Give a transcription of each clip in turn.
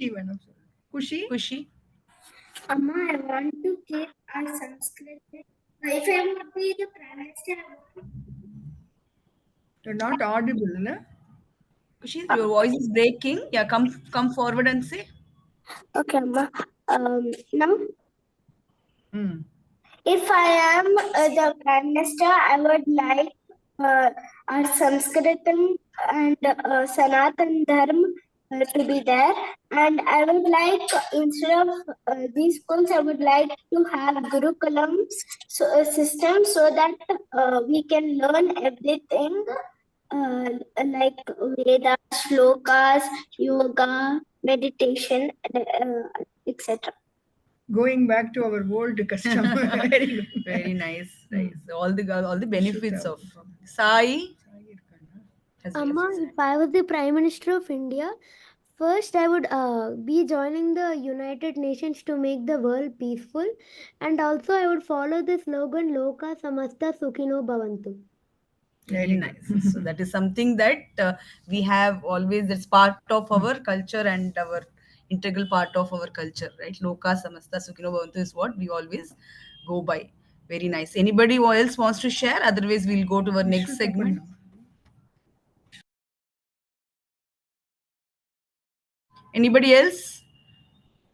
खुशी मैडम खुशी खुशी Amma, I want to keep our Sanskrit. If I am happy, the pronunciation. you're not audible na Kushi, your voice is breaking. Yeah, come come forward and say. Okay, Amma. Um, now, hmm. if I am uh, the Prime Minister, I would like uh, our Sanskritam and uh, Sanatan Dharma uh, to be there. And I would like, instead of uh, these schools, I would like to have Gurukulam so, uh, system so that uh, we can learn everything uh, like Vedas, Shlokas, Yoga, meditation, and, uh, etc. going back to our old custom very good Very nice. Hmm. nice. All the all the benefits Should of Sai. have- has- Amma, if I was the Prime Minister of India, first I would uh, be joining the United Nations to make the world peaceful, and also I would follow the slogan "Loka Samasta Sukhino Bhavantu." Very nice. So that is something that uh, we have always. That's part of Hmm. our culture and our integral part of our culture, right? Loka samasta sukhino bhavantu is what we always go by. Very nice. Anybody who else wants to share? Otherwise, we'll go to our next segment. Anybody else?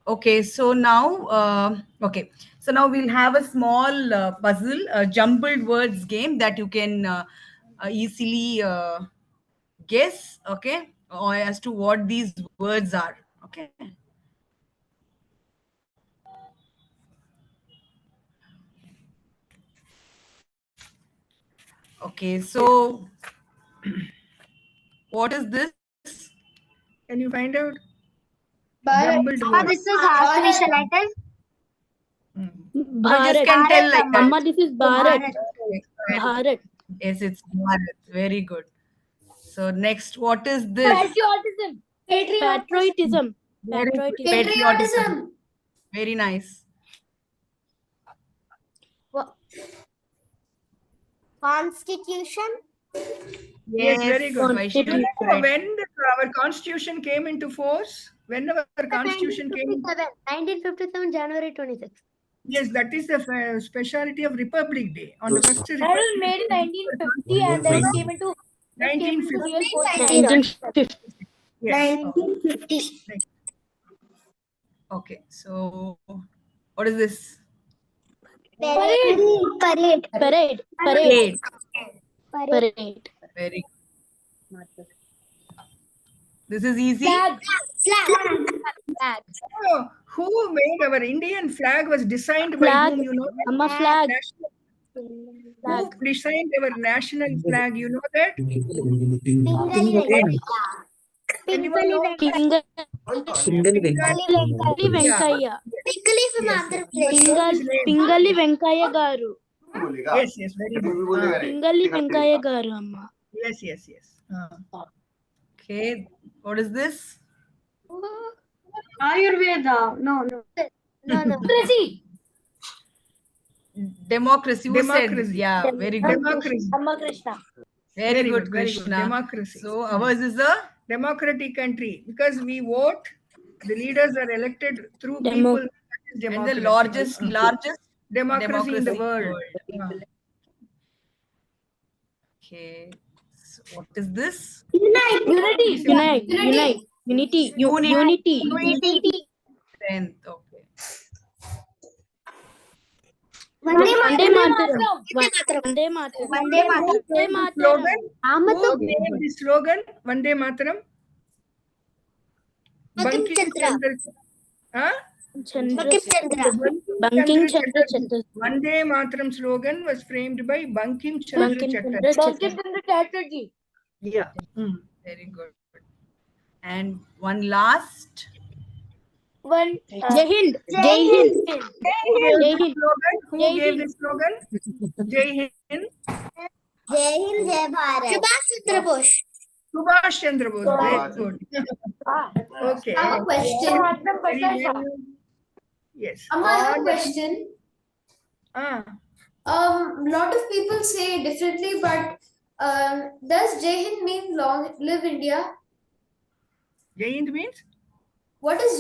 Okay. So now, uh, okay. So now we'll have a small uh, puzzle, a jumbled words game that you can uh, uh, easily uh, guess, okay, or as to what these words are, okay. Okay, so what is this? can you find out Bharat. jumbled words. this is how we shall I tell? Hmm. I just can tell like that. Amma, this is Bharat. Bharat. Yes, it's Bharat. Very good. So next, what is this? Patriotism. Patriotism. Very good. Patriotism. Patriotism. Very nice. Constitution. Yes, very good. Vaishnavi. You know when the, our constitution came into force, when our constitution came, in- 1957 January 26. yes, that is the fe- speciality of Republic Day on the first Republic made in 1950 and then came into. 1950. Yes. Nineteen fifty. Okay, so what is this? Parade. Parade. Parade. Parade. Parade. Parade. Parade. Very good. This is easy. Flag. Oh, who made our Indian flag was designed by Flag. whom, you know? that? Amma flag. National- Who designed our national flag, you know that? Pingali Anyone know? Pingali Venkaya. Venkaya. Pingali from Andhra Pradesh. Pingal- Pingali Venkaya garu. Yes, yes, very good. Ah, Pingali Venkaya garu, Amma. Yes, yes, yes. Ah. Okay, what is this? Ayurveda. No, no. No, no. Democracy. Who said? Democracy. Yeah, very good. Democracy. Amma Krishna. Very, good, very Krishna. Democracy. So ours is a democratic country because we vote, the leaders are elected through Demo- people. and the largest, largest democracy in the democracy world. Ah. Okay. So what is this? Unity. Unite. Unite. Unity. U- Unity. Unity. Strength. Okay. Vande Mataram. Mataram. Vande Mataram. Vande Mataram. Vande Mataram. Slogan. Amata Who made the slogan? Vande Mataram. Bankim Chandra. Huh? Chandra. Bankim Chandra. Chandra Banking Chandra Chatterjee. Chandra. Vande Mataram slogan was framed by Bankim Chandra Banking Chandra Chatterjee. Chandra. Yeah. Hmm. Very good. And one last. One. Jai Hind. Jai Hind. Jai Hind. Slogan. Who Jai gave Hind. the slogan? Jai Hind. Jai Hind, Jai Bharat. Subhash Chandra Bose. Subhash Chandra Bose. Very good. Okay. I have a question. Very well. Yes. Amma, I have a question. Ah, Um, lot of people say differently, but um, does Jai Hind mean long live India? Jai Hind means? What is